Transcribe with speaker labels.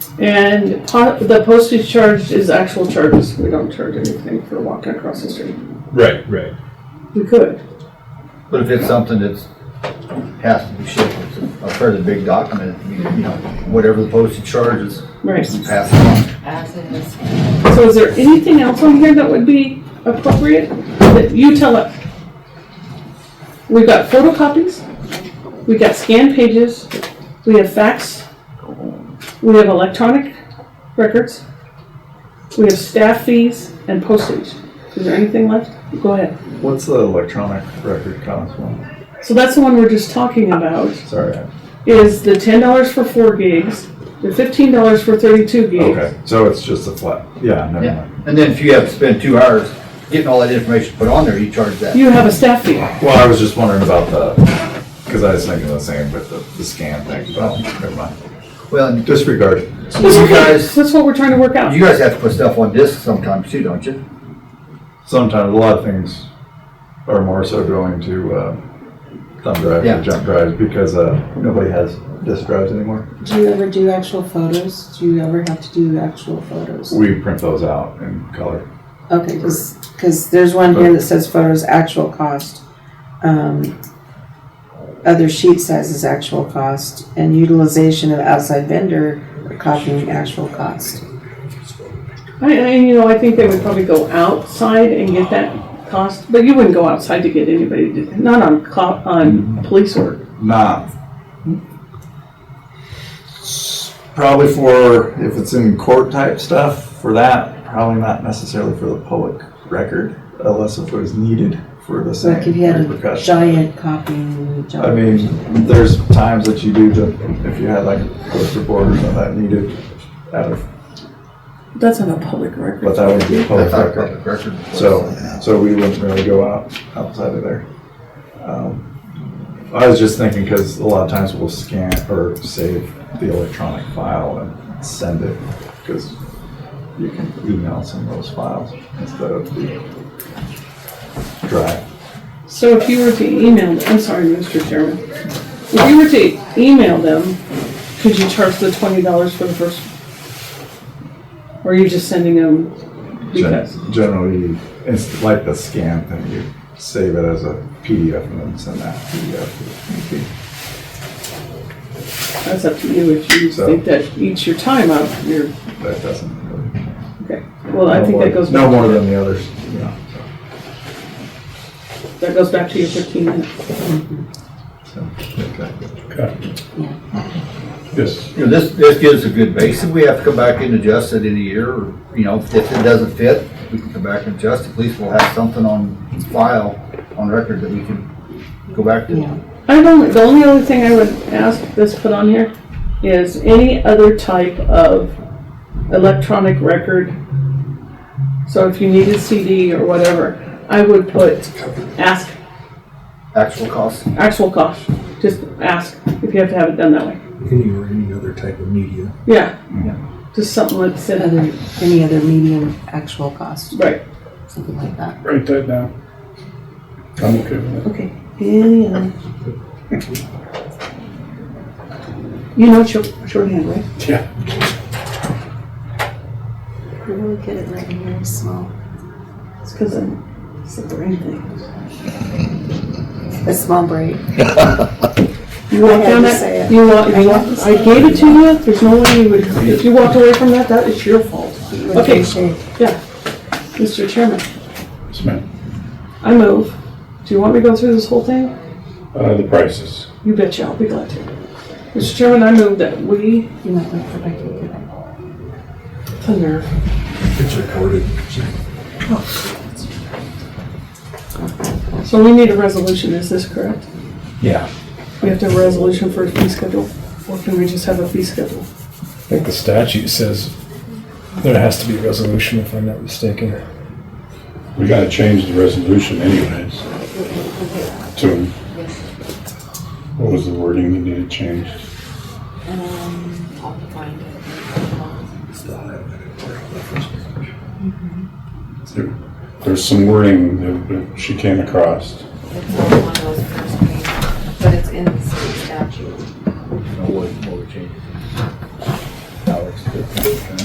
Speaker 1: And po- the postage charge is actual charges. We don't charge anything for walking across the street.
Speaker 2: Right, right.
Speaker 1: We could.
Speaker 3: But if it's something that's, has to be shipped, it's a fairly big document, you know, whatever the postage charges,
Speaker 1: Right.
Speaker 3: you pass it on.
Speaker 4: As it is.
Speaker 1: So is there anything else on here that would be appropriate? That you tell us. We've got photocopies, we got scanned pages, we have fax, we have electronic records, we have staff fees and postage. Is there anything left? Go ahead.
Speaker 5: What's the electronic record cost one?
Speaker 1: So that's the one we're just talking about,
Speaker 5: Sorry. I-
Speaker 1: is the ten dollars for four gigs, the fifteen dollars for thirty-two gigs.
Speaker 5: Okay, so it's just a flat, yeah, never
Speaker 3: Yeah.
Speaker 5: mind.
Speaker 3: And then if you have to spend two hours getting all that information put on there, you charge that.
Speaker 1: You have a staff fee.
Speaker 5: Well, I was just wondering about the, because I was thinking the same with the, the scan thing, but never mind.
Speaker 3: Well, and
Speaker 5: Disregard.
Speaker 3: so
Speaker 1: That's
Speaker 3: you
Speaker 1: okay,
Speaker 3: guys,
Speaker 1: that's what we're trying to work out.
Speaker 3: you guys have to put stuff on disk sometimes too, don't you?
Speaker 5: Sometimes, a lot of things are more so going to uh, thumb drives
Speaker 3: Yeah.
Speaker 5: or jump drives because uh, nobody has disk drives anymore.
Speaker 6: Do you ever do actual photos? Do you ever have to do actual photos?
Speaker 5: We print those out in color.
Speaker 6: Okay, because there's one here that says photos, actual cost. Um, Other sheet sizes, actual cost, and utilization of outside vendor, copying actual cost.
Speaker 1: I, I, you know, I think they would probably go outside and get that cost, but you wouldn't go outside to get anybody, to- not on cop, on police work.
Speaker 5: Not. Probably for, if it's in court type stuff, for that, probably not necessarily for the public record, unless if it was needed for the same
Speaker 6: Like if you had a
Speaker 5: repercussion.
Speaker 6: giant copying job.
Speaker 5: I mean, there's times that you do, the- if you had like a poster board or something that needed out of,
Speaker 1: That's on a public record.
Speaker 5: but that would be a public
Speaker 3: That's not
Speaker 5: record.
Speaker 3: public record.
Speaker 5: Oh, So, so we wouldn't really go out, outside of there. Um, I was just thinking, because a lot of times we'll scan or save the electronic file and send it, because you can email some of those files instead of the drive.
Speaker 1: So if you were to email, I'm sorry, Mr. Chairman, if you were to email them, could you charge the twenty dollars for the first? Or are you just sending them
Speaker 5: Gen-
Speaker 1: because?
Speaker 5: Generally, it's like the scan thing, you save it as a PDF and then send that PDF. to the MP.
Speaker 1: That's up to you if you
Speaker 5: So-
Speaker 1: think that eats your time out of your,
Speaker 5: That doesn't really.
Speaker 1: okay. Well, I think that goes
Speaker 5: No
Speaker 1: back,
Speaker 5: more than the others, you know,
Speaker 1: that goes back to your fifteen minutes.
Speaker 5: so, exactly.
Speaker 2: Yes.
Speaker 3: You know, this, this gives a good base, and we have to come back and adjust it in a year, or, you know, if it doesn't fit, we can come back and adjust, at least we'll have something on file, on record that we can go back to.
Speaker 6: Yeah.
Speaker 1: I don't, the only other thing I would ask this put on here is any other type of electronic record. So if you need a CD or whatever, I would put, ask,
Speaker 3: Actual cost,
Speaker 1: actual cost, just ask if you have to have it done that way.
Speaker 7: any or any other type of media.
Speaker 1: Yeah, just something like that,
Speaker 6: Other, any other medium, actual cost,
Speaker 1: right.
Speaker 6: something like that.
Speaker 8: Write that down. I'm okay with that.
Speaker 6: Okay. Any other?
Speaker 1: You know short shorthand, right?
Speaker 8: Yeah.
Speaker 6: We're really good at writing very small.
Speaker 1: It's because I'm sick or anything.
Speaker 6: A small break.
Speaker 1: You walk
Speaker 6: I had
Speaker 1: down
Speaker 6: to say
Speaker 1: that,
Speaker 6: it.
Speaker 1: you walk, you
Speaker 6: I
Speaker 1: walk,
Speaker 6: had to say
Speaker 1: I gave it to you, there's no way you would, if you walked away from that, that is your fault.
Speaker 6: Would
Speaker 1: Okay.
Speaker 6: appreciate-
Speaker 1: Yeah, Mr. Chairman.
Speaker 8: Yes, ma'am.
Speaker 1: I move. Do you want me to go through this whole thing?
Speaker 8: Uh, the prices.
Speaker 1: You betcha, I'll be glad to. Mr. Chairman, I move that we,
Speaker 6: You might wait for Becky to get back.
Speaker 1: thunder,
Speaker 7: It's recorded.
Speaker 1: so we need a resolution, is this correct?
Speaker 5: Yeah.
Speaker 1: We have to have a resolution for a fee schedule, or can we just have a fee schedule?
Speaker 7: I think the statute says there has to be a resolution, if I'm not mistaken.
Speaker 8: We gotta change the resolution anyways. To, what was the wording that needed changed?
Speaker 4: Um, I'll find it.
Speaker 8: There- There's some wording that- that she came across.
Speaker 4: It's on one of those first pages, but it's in the state statute.
Speaker 3: no way, more changes. Alex, good. Okay.